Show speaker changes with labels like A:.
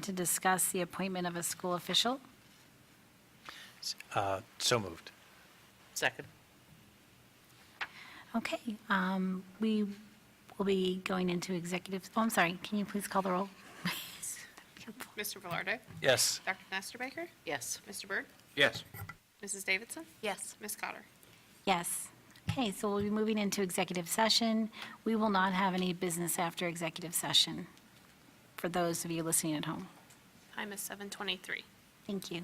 A: to discuss the appointment of a school official.
B: Uh, So moved.
C: Second.
A: Okay, um, we will be going into executive, oh, I'm sorry, can you please call the roll?
D: Mr. Velarde?
B: Yes.
D: Dr. Nesterbaker?
C: Yes.
D: Mr. Byrd?
B: Yes.
D: Mrs. Davidson?
C: Yes.
D: Ms. Cotter?
A: Yes. Okay, so we'll be moving into executive session. We will not have any business after executive session, for those of you listening at home.
D: Time is 7:23.
A: Thank you.